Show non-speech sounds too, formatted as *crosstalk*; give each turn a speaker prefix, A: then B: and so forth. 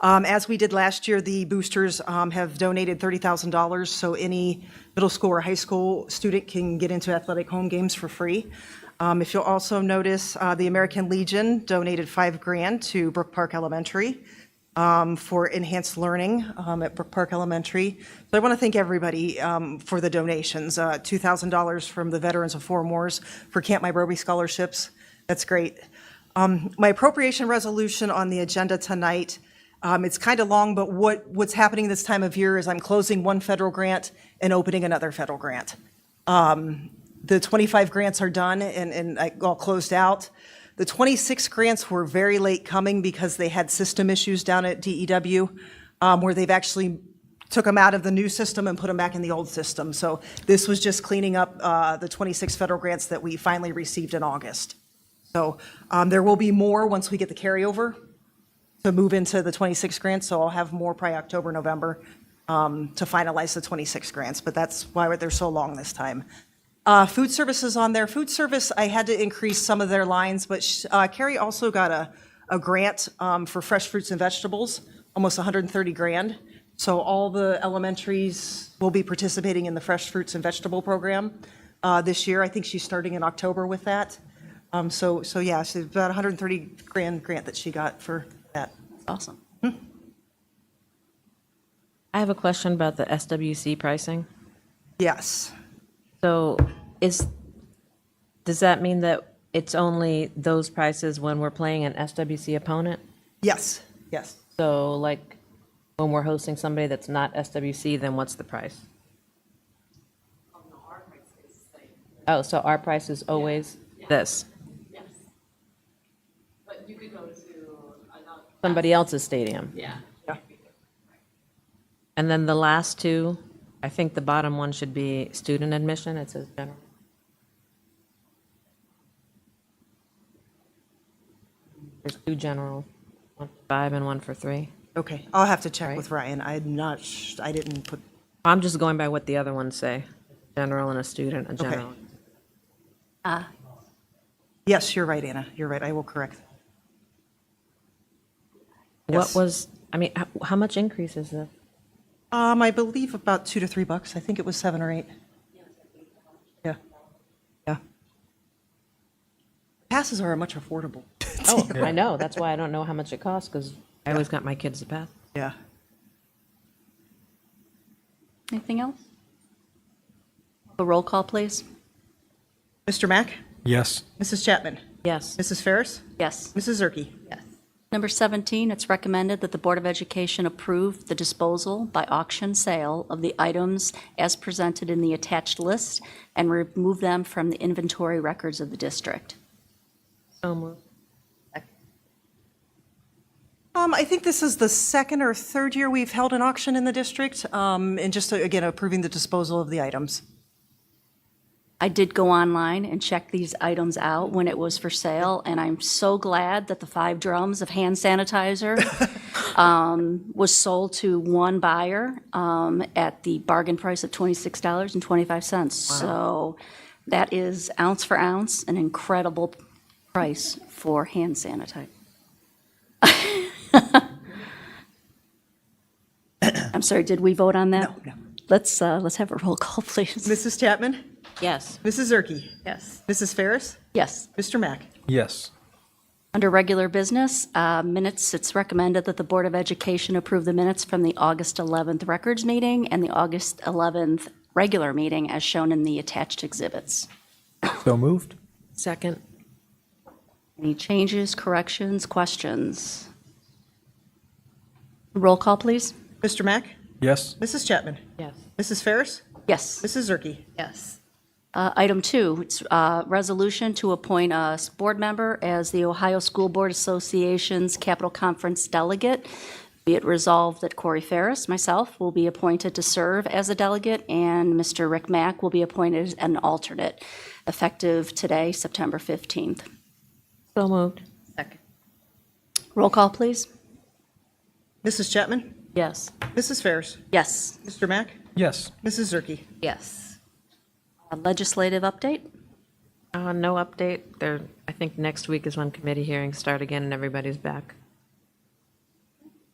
A: Um, As we did last year, the boosters um, have donated $30,000, so any middle school or high school student can get into athletic home games for free. Um, If you'll also notice, uh, the American Legion donated five grand to Brook Park Elementary um, for enhanced learning um, at Brook Park Elementary. So I want to thank everybody um, for the donations, Uh, $2,000 from the Veterans of Foreign Wars for Camp Mybrobe scholarships. That's great. Um, My appropriation resolution on the agenda tonight, um, it's kind of long, but what, what's happening this time of year is I'm closing one federal grant and opening another federal grant Um, the 25 grants are done and, and like, all closed out. The 26 grants were very late coming because they had system issues down at DEW, um, where they've actually took them out of the new system and put them back in the old system. So this was just cleaning up uh, the 26 federal grants that we finally received in August. So um, there will be more once we get the carryover to move into the 26 grants, so I'll have more probably October, November um, to finalize the 26 grants, but that's why they're so long this time. Uh, Food services on there, food service, I had to increase some of their lines, but sh- uh, Carrie also got a, a grant um, for fresh fruits and vegetables, almost 130 grand. So all the elementaries will be participating in the fresh fruits and vegetable program uh, this year. I think she's starting in October with that. Um, So, so yeah, she's about 130 grand grant that she got for that.
B: Awesome. I have a question about the SWC pricing.
A: Yes.
B: So is, does that mean that it's only those prices when we're playing an SWC opponent?
A: Yes. Yes.
B: So like, when we're hosting somebody that's not SWC, then what's the price? Oh, so our price is always this?
C: Yes. But you could go to another,
B: Somebody else's stadium?
C: yeah.
A: Yeah.
B: And then the last two, I think the bottom one should be student admission, it says general. There's two general, one for five and one for three.
A: Okay. I'll have to check with Ryan. I'm not, sh- I didn't put,
B: I'm just going by what the other ones say, general and a student, a general.
A: yes, you're right, Anna. You're right. I will correct.
B: What
A: Yes.
B: was, I mean, how, how much increase is this?
A: Um, I believe about two to three bucks. I think it was seven or eight. Yeah. Yeah. Passes are much affordable.
B: Oh, I know, that's why I don't know how much it costs, because I always got my kids to pass.
A: Yeah.
D: Anything else? A roll call, please.
A: Mr. Mack,
E: Yes.
A: Mrs. Chapman,
B: Yes,
A: Mrs. Ferris,
D: Yes.
A: Mrs. Zerke.
D: Yes. Number 17, it's recommended that the Board of Education approve the disposal by auction sale of the items as presented in the attached list and remove them from the inventory records of the district.
B: so moved.
A: Um, I think this is the second or third year we've held an auction in the district, um, and just, uh, again, approving the disposal of the items.
D: I did go online and check these items out when it was for sale, and I'm so glad that the five drums of hand
A: *laughs*
D: sanitizer um, was sold to one buyer um, at the bargain price of $26.25. So that is ounce for ounce, an incredible price for hand sanitizer. *laughs* I'm sorry, did we vote on that?
A: No, no.
D: Let's, uh, let's have a roll call, please.
A: Mrs. Chapman,
B: Yes,
A: Mrs. Zerke,
D: Yes.
A: Mrs. Ferris,
D: Yes.
A: Mr. Mack.
E: Yes.
D: Under regular business, uh, minutes, it's recommended that the Board of Education approve the minutes from the August 11th records meeting and the August 11th regular meeting as shown in the attached exhibits.
E: So moved?
B: second,
D: Any changes, corrections, questions? Roll call, please.
A: Mr. Mack,
E: Yes.
A: Mrs. Chapman,
B: yes,
A: Mrs. Ferris,
D: Yes.
A: Mrs. Zerke.
D: Uh, Item two, it's uh resolution to appoint a s- board member as the Ohio School Board Association's Capital Conference delegate. Be it resolved that Corey Ferris, myself, will be appointed to serve as a delegate, and Mr. Rick Mack will be appointed as an alternate, effective today, September 15th.
B: so moved.
D: Roll call, please.
A: Mrs. Chapman,
B: Yes,
A: Mrs. Ferris,
D: Yes.
A: Mr. Mack,
E: Yes.
A: Mrs. Zerke.
D: Uh, Legislative update?
B: uh, no update, there, I think next week is when committee hearings start again and everybody's back.